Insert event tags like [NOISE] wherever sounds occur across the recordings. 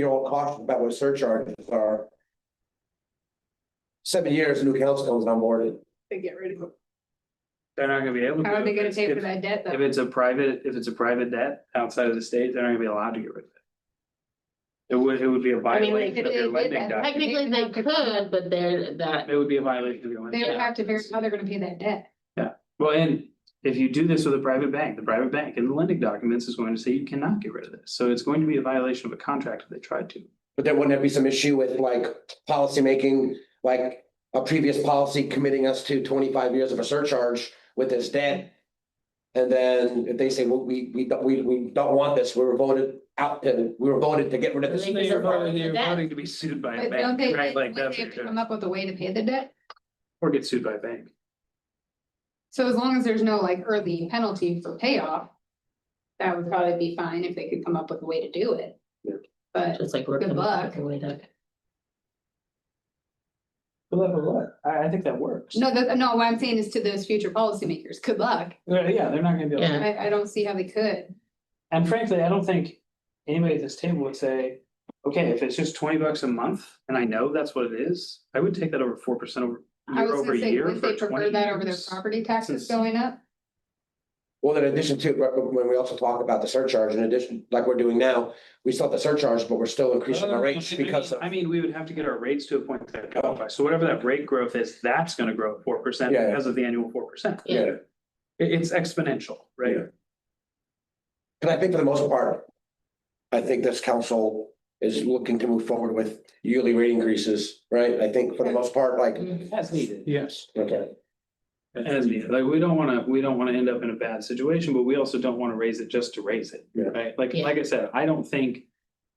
be all cautious about what surcharges are. Seven years, new council comes on board, They get rid of it. They're not gonna be able to. How are they gonna pay for If- that debt If though? it's a private, if it's a private debt outside of the state, they're not gonna be allowed to get rid of it. It would, it would be a I mean, they violation could- they of their did lending that. doc. Technically, they could, but they're that, It would be a violation of your lending. They would doc. have to figure out how they're gonna pay that debt. Well, and if you do this with a private bank, the private bank in the lending documents is going to say you cannot get rid of this. So it's going to be a violation of a contract if they tried to. but then wouldn't there be some issue with like policymaking, like a previous policy committing us to twenty-five years of a surcharge with this debt? And then if they say, well, we, we, don't- we, we don't want this, we were voted out, to we were voted to get rid of this. They Because You're they're voting voting, you're for that. voting to be sued by a But don't bank, they, right? wouldn't Like that, they have to come up with a way to pay the debt? or get sued by a bank. So as long as there's no like early penalty for payoff. That would probably be fine if they could come up with a way to do it. Yeah. But just like we're. Good coming up luck. with a way to- Well, that would work. I, I think that works. no, that, no, what I'm saying is to those future policymakers, good luck. Yeah, yeah, they're not gonna be able to. Yeah. I, I don't see how they could. And frankly, I don't think anybody at this table would say, okay, if it's just twenty bucks a month, and I know that's what it is, I would take that over four percent over. I year was over gonna say, year would they prefer for 20 that over their years. property taxes Since- going up? Well, in addition to, when we also talk about the surcharge, in addition, like we're doing now, we still have the surcharge, but we're still increasing our rates because of. I mean, we would have to get our rates to a point that qualify, so whatever that rate growth is, that's gonna grow four percent Yeah. because of the annual four percent. Yeah. it's exponential, right? Yeah. But I think for the most part, I think this council is looking to move forward with yearly rate increases, right? I think for the most part, like, Mm-hmm. As needed. Yes. okay, As needed, like, we don't wanna, we don't wanna end up in a bad situation, but we also don't wanna raise it just to raise it, Yeah. right? Like, Yeah. like I said, I don't think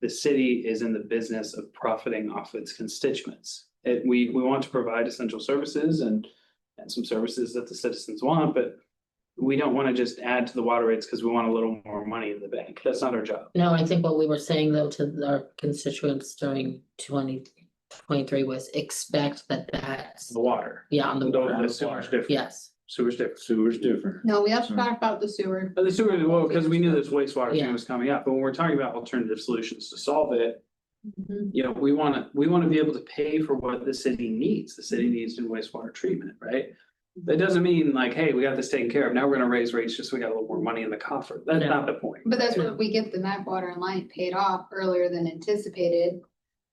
the city is in the business of profiting off its constituents. It, we, we want to provide essential services and, and some services that the citizens want, but we don't wanna just add to the water rates because we want a little more money in the bank. That's not our job. No, I think what we were saying though to our constituents during twenty twenty-three was expect that that's, The water. yeah, on the. Don't- water. The sewer's different. Yes, Sewer's different. Sewer's different. No, we have to Sorry. talk about the sewer. But the sewer, well, because we knew this wastewater Yeah. thing was coming up, but when we're talking about alternative solutions to solve it, Mm-hmm. you know, we wanna, we wanna be able to pay for what the city needs, the city needs in wastewater treatment, right? That doesn't mean like, hey, we got this taken care of, now we're gonna raise rates just so we got a little more money in the coffer, that's No. not the point. But that's what we get the MAC water and light paid off earlier than anticipated.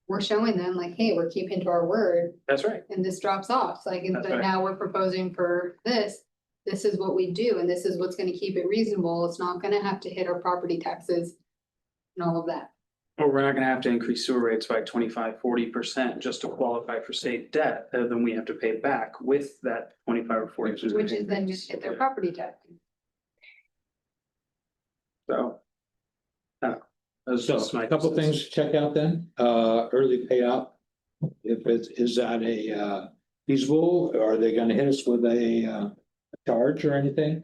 We're showing them like, hey, we're keeping to our word That's right, and this drops off. So like, That's but right. now we're proposing for this. This is what we do and this is what's gonna keep it reasonable. It's not gonna have to hit our property taxes and all of that. or we're not gonna have to increase sewer rates by 25, 40 percent just to qualify for state debt, uh, then we have to pay back with that twenty-five or forty percent. Which is then just hit their property tax. So. uh, that's So just my a couple two cents. things to check out then, uh, early payout. If it, is that a, uh, feasible, are they gonna hit us with a, uh, charge or anything?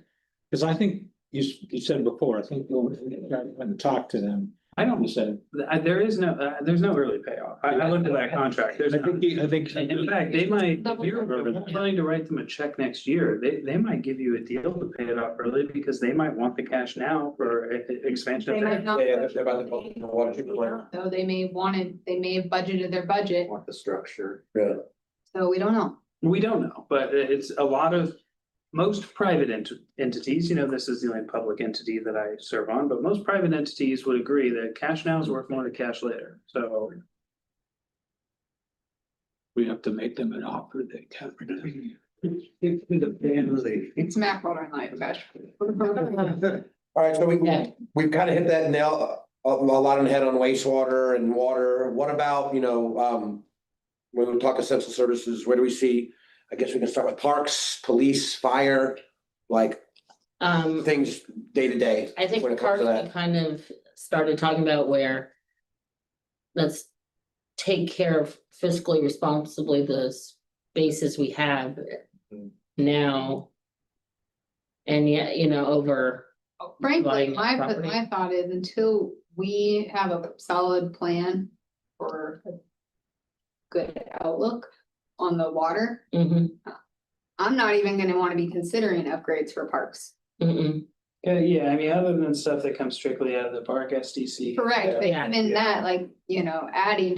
Cause I think you, s- you said before, I think you went and talked to them, I don't, you said. I- there is no, uh, there's no early payoff, I, I looked at that contract, there's. I no- think, you- I think. In fact, they might, if Double you're check. planning to write them a check next year, they, they might give you a deal to pay it off early because they might want the cash now for e- e- expansion. They of might their- Um, not. yeah, yeah, they're about to vote on the water treatment plant. Though they may wanted, they may have budgeted their budget, want the structure. so we don't know. We don't know, but i- it's a lot of, most private ent- entities, you know, this is the only public entity that I serve on, but most private entities would agree that cash now is worth more than cash later, so. We have to make them an offer they can't. refuse. [LAUGHS] It's Mac water and light, gosh. [LAUGHS] All right, so we, Yeah. we've kind of hit that nail, uh, a, a lot on the head on wastewater and water. What about, you know, um, when we talk essential services, where do we see, I guess we can start with parks, police, fire, like um, things day to day. I when think it comes Parks to we that. kind of started talking about where. Let's take care of fiscally responsibly the spaces we have now. And yet, you know, over, Frankly, buying my, property. my thought is until we have a solid plan for a good outlook on the water, mhm, mm-hmm. I'm not even gonna wanna be considering upgrades for parks. mm-mm. Yeah, yeah, I mean, other than stuff that comes strictly out of the park SDC. Correct, but Yeah. even that, like, you know, adding